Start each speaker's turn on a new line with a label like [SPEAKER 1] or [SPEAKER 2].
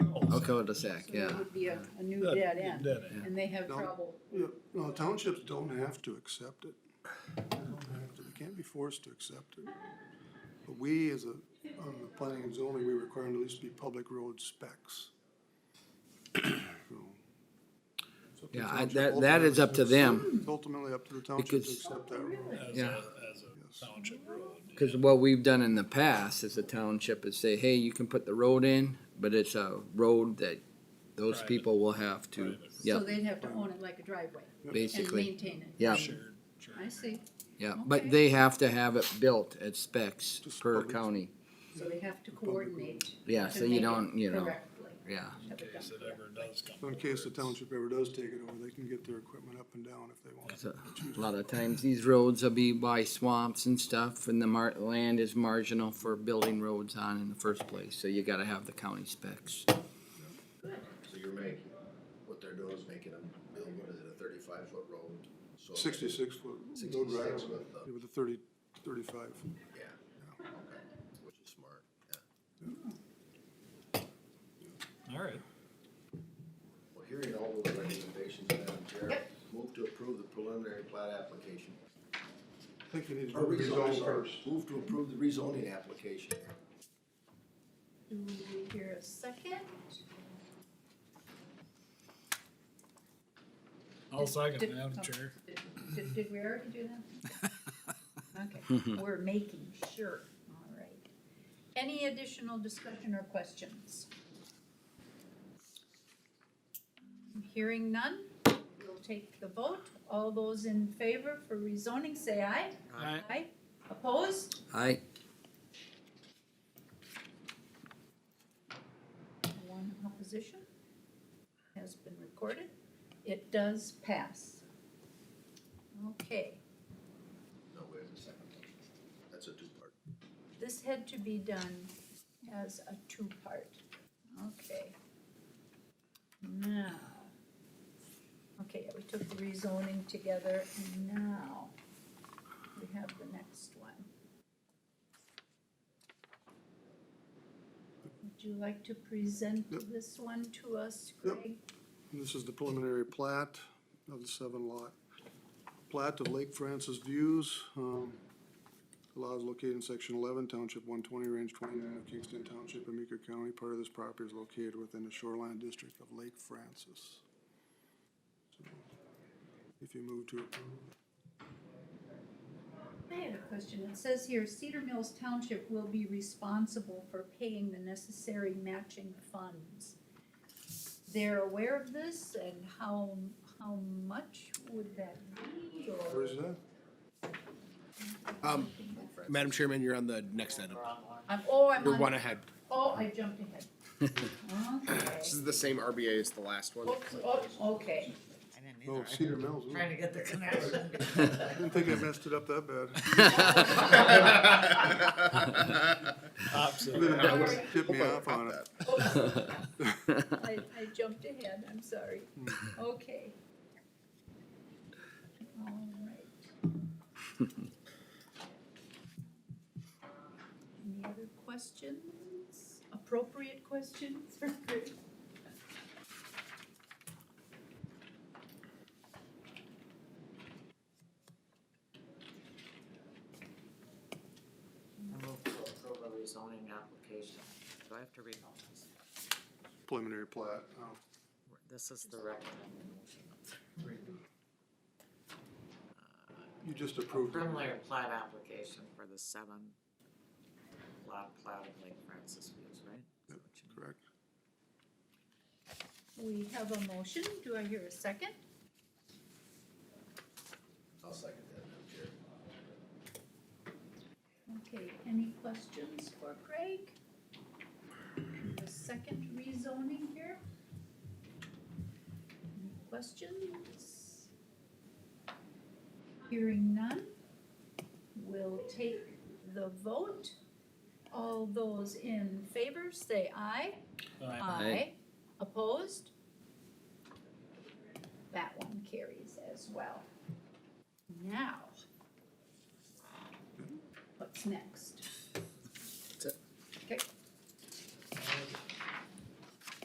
[SPEAKER 1] cul-de-sac,
[SPEAKER 2] So
[SPEAKER 1] yeah.
[SPEAKER 2] it would be a, a new dead end,
[SPEAKER 3] Dead end.
[SPEAKER 2] and they have
[SPEAKER 4] No.
[SPEAKER 2] trouble.
[SPEAKER 4] Yeah, no, townships don't have to accept it. They don't have to, they can't be forced to accept it. But we, as a, on the planning and zoning, we require them to at least be public road specs. So- it's up to the
[SPEAKER 1] Yeah, I-
[SPEAKER 4] township
[SPEAKER 1] that- that is up to them.
[SPEAKER 4] ultimately- It's ultimately up to the township to
[SPEAKER 1] Because-
[SPEAKER 4] accept that road.
[SPEAKER 3] as a,
[SPEAKER 1] Yeah.
[SPEAKER 3] as a township road.
[SPEAKER 1] Cause what we've done in the past is the township is say, hey, you can put the road in, but it's a road that those
[SPEAKER 3] Private.
[SPEAKER 1] people will have to,
[SPEAKER 3] Private.
[SPEAKER 1] yeah,
[SPEAKER 2] So they'd have to own it like a driveway and
[SPEAKER 1] basically,
[SPEAKER 2] maintain it.
[SPEAKER 1] yeah,
[SPEAKER 3] Shared, shared.
[SPEAKER 2] I see,
[SPEAKER 1] yeah.
[SPEAKER 2] Okay.
[SPEAKER 1] But they have to have it built at specs
[SPEAKER 4] Just
[SPEAKER 1] per
[SPEAKER 4] public.
[SPEAKER 1] county,
[SPEAKER 2] so they have to coordinate.
[SPEAKER 1] yeah,
[SPEAKER 2] to
[SPEAKER 1] so you
[SPEAKER 2] make it
[SPEAKER 1] don't, you know,
[SPEAKER 2] correctly.
[SPEAKER 1] yeah.
[SPEAKER 3] In case it ever does come.
[SPEAKER 4] So In case the
[SPEAKER 3] over, it's-
[SPEAKER 4] township ever does take it over, they can get their equipment up and down if they want.
[SPEAKER 1] So, A lot of times these roads will be by swamps and stuff and the mar- land is marginal for building roads on in the first place, so you gotta have the county specs.
[SPEAKER 5] So you're making, what they're doing is making them build, what is it, a thirty-five foot road? So-
[SPEAKER 4] Sixty-six foot road
[SPEAKER 5] 66
[SPEAKER 4] right
[SPEAKER 5] with the-
[SPEAKER 4] with a thirty, thirty-five.
[SPEAKER 5] Yeah, okay, which is smart, yeah.
[SPEAKER 3] All right.
[SPEAKER 5] Well, hearing all those recommendations, Madam Chair,
[SPEAKER 2] Yep.
[SPEAKER 5] move to approve the preliminary plat application.
[SPEAKER 4] I think you need to
[SPEAKER 5] Or
[SPEAKER 4] rezone
[SPEAKER 5] sorry.
[SPEAKER 4] first.
[SPEAKER 5] Move to approve the rezoning application.
[SPEAKER 2] Do we hear a second?
[SPEAKER 3] I'll second,
[SPEAKER 2] Did-
[SPEAKER 3] Madam
[SPEAKER 2] oh,
[SPEAKER 3] Chair.
[SPEAKER 2] did- Did, did we already do that? Okay, we're making sure, all right. Any additional discussion or questions? Hearing none, we'll take the vote. All those in favor for rezoning, say aye.
[SPEAKER 3] Aye.
[SPEAKER 2] Aye. Opposed?
[SPEAKER 1] I,
[SPEAKER 2] One opposition has been recorded. It does pass. Okay.
[SPEAKER 5] No, wait a second. That's a two-part.
[SPEAKER 2] This had to be done as a two-part. Okay. Now. Okay, we took the rezoning together and now we have the next one. Would you like to present
[SPEAKER 4] Yep.
[SPEAKER 2] this one to us,
[SPEAKER 4] Yep.
[SPEAKER 2] Greg?
[SPEAKER 4] And This is the preliminary plat of the seven lot. Plat of Lake Francis Views, um, lot is located in section eleven, township one twenty, range twenty-nine of Kingston Township, in Meeker County. Part of this property is located within the shoreline district of Lake Francis. So, If you move to approve,
[SPEAKER 2] I had a question. It says here Cedar Mills Township will be responsible for paying the necessary matching funds. They're aware of this and how, how much would that be
[SPEAKER 4] where
[SPEAKER 2] or?
[SPEAKER 4] is that?
[SPEAKER 6] Um, Madam Chairman, you're on the next item.
[SPEAKER 2] I'm, oh, I'm
[SPEAKER 6] You're one
[SPEAKER 2] on,
[SPEAKER 6] ahead.
[SPEAKER 2] oh, I jumped ahead. Okay.
[SPEAKER 6] This is the same RBA as the last one.
[SPEAKER 2] Oops, oh, okay.
[SPEAKER 7] I didn't
[SPEAKER 4] Oh,
[SPEAKER 7] either.
[SPEAKER 4] Cedar Mills.
[SPEAKER 7] I'm
[SPEAKER 4] isn't
[SPEAKER 7] Trying
[SPEAKER 4] it?
[SPEAKER 7] to get the connection.
[SPEAKER 4] I didn't think I messed it up that bad.
[SPEAKER 3] Opposite.
[SPEAKER 4] Didn't Tip me off on it.
[SPEAKER 2] Oops. I, I jumped ahead, I'm sorry. Okay. All right. Any other questions? Appropriate questions for Greg?
[SPEAKER 7] I move to approve a rezoning application. Do I have to read all this?
[SPEAKER 4] Preliminary plat, oh.
[SPEAKER 7] This is the recommended motion.
[SPEAKER 4] You just approved it.
[SPEAKER 7] Preliminary plat application for the seven lot plat of Lake Francis Views, right?
[SPEAKER 4] Yep, Correct.
[SPEAKER 2] We have a motion, do I hear a second?
[SPEAKER 5] I'll second that, Madam Chair.
[SPEAKER 2] Okay, any questions for Craig? The second rezoning here? Any questions? Hearing none, we'll take the vote. All those in favor say aye.
[SPEAKER 3] Aye.
[SPEAKER 1] Aye.
[SPEAKER 2] Opposed? That one carries as well. Now. What's next?